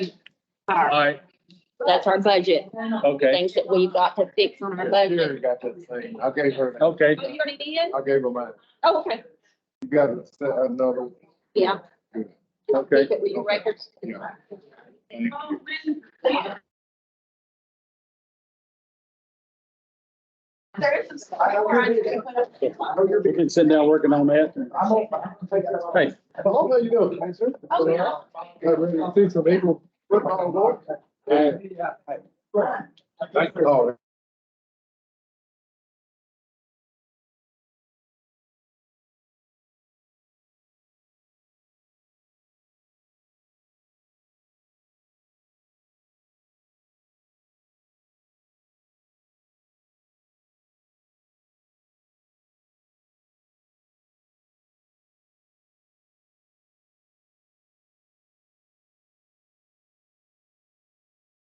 All right, right, that's our budget, okay, things that we've got to fix on our budget. Sherry got that thing. I gave her, that. okay. Oh, You already did? I gave her mine. Oh, okay, You got another. yeah. Okay. Keep it with your records. Yeah. There is some stuff trying to put up. We can sit down working on that. Hey. Oh, there you go. Oh, yeah. Got ready to see some April football, boy. Hey. Oh,